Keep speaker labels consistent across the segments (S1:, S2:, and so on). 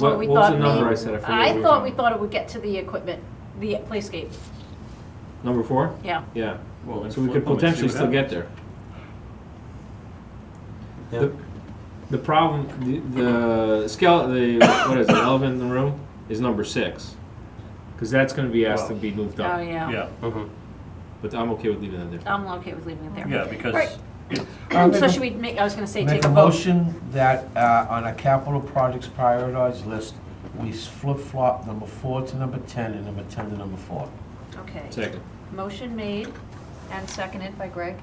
S1: What,
S2: We
S1: what was the
S2: thought
S1: number
S2: we-
S1: I said? I forget. what
S2: I
S1: were
S2: thought we
S1: talking-
S2: thought it would get to the equipment, the playscape,
S1: Number four?
S2: yeah.
S1: Yeah.
S3: Well, then
S1: So we
S3: flip
S1: could
S3: them and see
S1: potentially
S3: what
S1: still get
S3: happens.
S1: there. The, the problem, the, the scale, the, what is it, elephant in the room is number six. Cause that's gonna be asked to
S3: Wow.
S1: be moved
S2: Oh,
S1: up,
S2: yeah.
S3: Yeah,
S1: but I'm okay with leaving that there.
S2: I'm okay with leaving it there.
S3: yeah, because
S2: Right.
S4: I'll make
S2: So
S4: a-
S2: should we make, I was gonna say,
S4: Make
S2: take
S4: a
S2: a vote.
S4: motion that uh, on a capital projects prioritized list, we flip-flop number four to number 10 and number 10 to number four.
S2: Okay.
S1: Second.
S2: Motion made and seconded by Greg.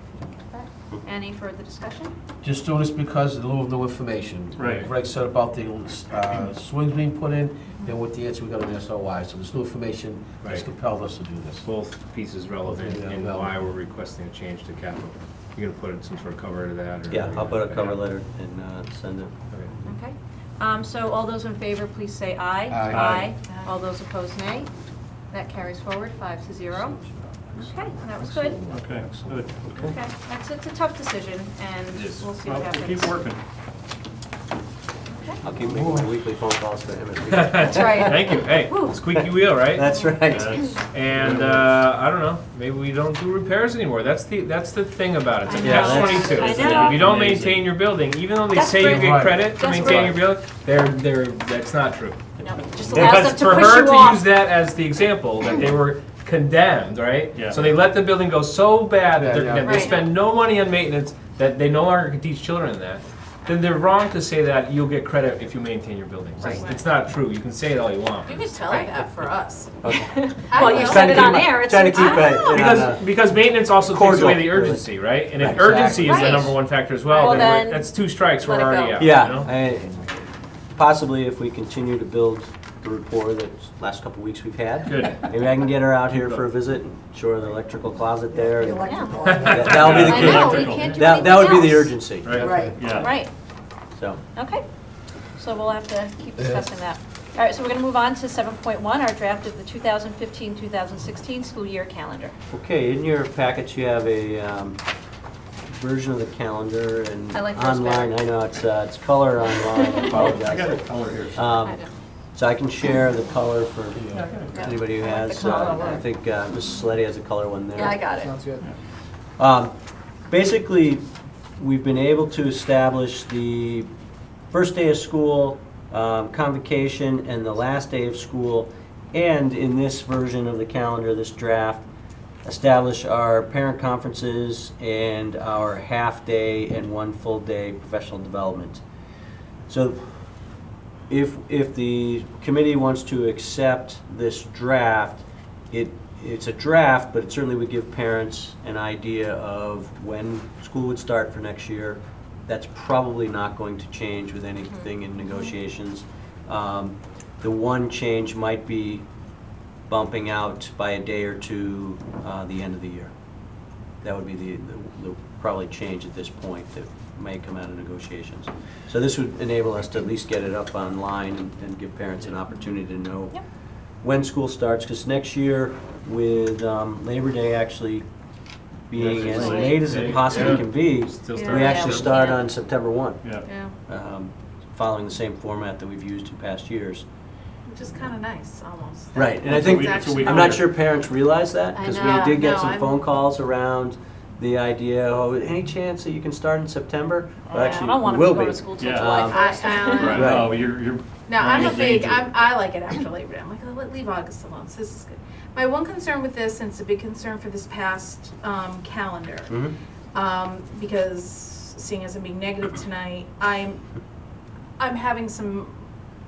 S2: Any further discussion?
S4: Just doing this because in lieu of new information.
S3: Right.
S4: Greg said about the uh, swings being put in, and what the answer we got on SOI. So this new information has
S1: Right.
S4: compelled us to do this.
S1: Both pieces relevant
S4: Yeah.
S1: and why we're requesting a change to capital. You're gonna put in some sort of cover to that or?
S5: Yeah, I'll put a cover letter and uh, send it.
S1: Okay.
S2: Okay. Um, So all those in favor, please say aye.
S4: Aye.
S2: All those opposed, nay. That carries forward, five to zero. Okay, that was good.
S3: Okay, good.
S2: Okay, that's, it's a tough decision, and
S1: It is.
S2: we'll see what
S3: Well,
S2: happens.
S3: keep working.
S2: Okay.
S5: I'll keep making my weekly phone calls to him. if
S2: That's right.
S1: Thank you, hey,
S2: Whew.
S1: squeaky wheel,
S5: we-
S1: right?
S5: That's right.
S3: That's-
S1: And uh, I don't know, maybe we don't do repairs anymore. That's the that's the thing about it. It's a
S2: I
S5: know.
S1: catch twenty two.
S2: I know.
S1: If you don't
S3: Amazing.
S1: maintain your building, even though they
S2: That's
S1: say
S2: great.
S1: you get
S4: Right.
S1: credit for
S2: That's
S1: maintaining your
S2: great.
S1: building, they're they're that's not true.
S2: No, it Just allows
S1: Because
S2: them
S1: for
S2: to push
S1: her
S2: you
S1: to use
S2: off.
S1: that as the example that they were condemned, right?
S3: Yeah.
S1: So they let the building go so bad that they're
S4: Yeah, yeah.
S1: condemned. They
S2: Right.
S1: spend no money on maintenance that they no longer can teach children that. Then they're wrong to say that you'll get credit if you maintain your buildings. It's-
S2: Right.
S1: It's not true. You can say it all you want.
S6: You could tell her that for us.
S5: Okay.
S2: Well, you
S6: will.
S2: said
S5: Trying to
S2: it
S5: keep
S2: on
S5: my-
S2: air. it's- oh.
S5: Trying to keep
S2: I don't know.
S5: it.
S1: Because, because maintenance also takes
S5: Cordial,
S1: away the
S5: really.
S1: urgency, right? And if
S5: Right.
S1: urgency is the
S2: Right.
S1: number one factor as well,
S2: Well,
S1: then we're-
S2: then
S1: that's two strikes, we're
S2: let it
S1: already
S2: go.
S1: out, you
S5: Yeah,
S1: know?
S5: I- possibly if we continue to build the rapport that last couple weeks we've had.
S1: Good.
S5: Maybe I can get her out here for a visit, and show her the electrical closet there. and
S2: Yeah.
S5: That- That'll be
S2: I know,
S5: the
S2: we
S3: Electrical.
S2: can't
S5: key.
S2: do
S5: That, that would be the
S2: anything
S5: urgency,
S6: Right.
S2: else.
S3: Yeah.
S2: Right,
S5: so.
S2: okay. So we'll have to keep discussing that. All right, so we're going to move on to 7.1, our draft of the 2015-2016 school year calendar.
S5: Okay, in your package, you have a um, version of the calendar and
S2: I like yours better.
S5: online. I know, it's, uh, it's color online, I
S3: I got a
S5: apologize.
S3: color here.
S5: Um,
S2: I know.
S5: So I can share the color for
S2: Yeah.
S5: anybody who
S2: I like the
S5: has. uh,
S2: color one.
S5: I think uh, Mrs. Sleddy has a color one there.
S2: Yeah, I got it.
S5: Um, Basically, we've been able to establish the first day of school, um, convocation, and the last day of school, and in this version of the calendar, this draft, establish our parent conferences and our half-day and one full-day professional development. So if, if the committee wants to accept this draft, it, it's a draft, but it certainly would give parents an idea of when school would start for next year. That's probably not going to change with anything in negotiations. Um, The one change might be bumping out by a day or two, uh, the end of the year. That would be the, the- the probably change at this point that may come out of negotiations. So this would enable us to at least get it up online and- and give parents an opportunity to know
S2: Yep.
S5: when school starts, because next year with um, Labor Day actually being
S1: Yeah,
S5: as
S1: it's
S5: late as
S1: late.
S5: it possibly
S1: Yeah.
S5: can be,
S1: Still
S2: Yeah.
S1: starting
S5: we actually
S1: to-
S5: start
S2: Yeah.
S5: on September 1,
S3: Yeah.
S2: Yeah.
S5: um, following the same format that we've used in past years.
S6: Which is kind of nice, almost.
S5: Right, and I
S3: It's a
S5: think,
S3: week- it's a week
S5: I'm not
S3: older.
S5: sure parents realize that,
S6: I
S5: because
S6: know.
S5: we did get
S6: No,
S5: some
S6: I'm-
S5: phone calls around the idea, oh, any chance that you can start in September? Well,
S2: Yeah, I
S5: actually,
S2: don't
S5: we
S2: want them
S5: will
S2: to go to
S5: be.
S2: school till
S3: Yeah.
S2: July
S5: Um,
S2: first.
S6: I-
S3: Right,
S5: Right.
S3: no, you're, you're.
S6: No, I'm a
S3: running
S6: big,
S3: danger.
S6: I'm, I like it after Labor Day. I'm like, "Oh, leave August alone. So This is good. My one concern with this, and it's a big concern for this past um, calendar,
S5: Mhm.
S6: um, because seeing as I'm being negative tonight, I'm, I'm having some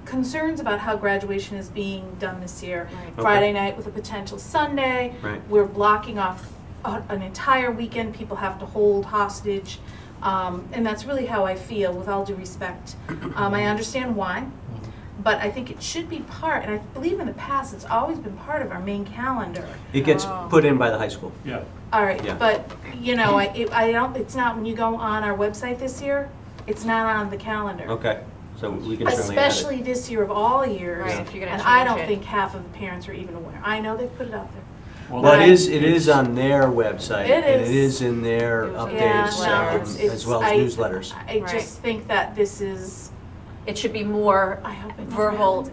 S6: concerns about how graduation is being done this year.
S2: Right.
S5: Okay.
S6: Friday night with a potential Sunday.
S5: Right.
S6: We're blocking off a- an entire weekend. People have to hold hostage. Um, and that's really how I feel, with all due respect. Um, I understand why,
S5: Mm-hmm.
S6: but I think it should be part, and I believe in the past, it's always been part of our main calendar.
S5: It gets
S2: Oh.
S5: put in by the high school.
S3: Yeah,
S6: All right,
S5: Yeah.
S6: but, you know, I, it- I don't, it's not, when you go on our website this year, it's not on the calendar.
S5: Okay, so we can certainly add it.
S6: Especially this year of all years.
S2: Right, if you're gonna
S6: And I
S2: change
S6: don't
S2: it.
S6: think half of the parents are even aware. I know they've put it out there.
S5: Well, it
S6: Right.
S5: is, it is on their website,
S6: It
S5: and it
S6: is.
S5: is in their
S2: It was-
S6: Yeah,
S5: updates,
S6: no,
S5: um,
S6: it's-
S5: as well
S6: it's- I-
S5: as newsletters.
S6: I just think that this is,
S2: It should be more
S6: I hope it never
S2: verbal
S6: happens.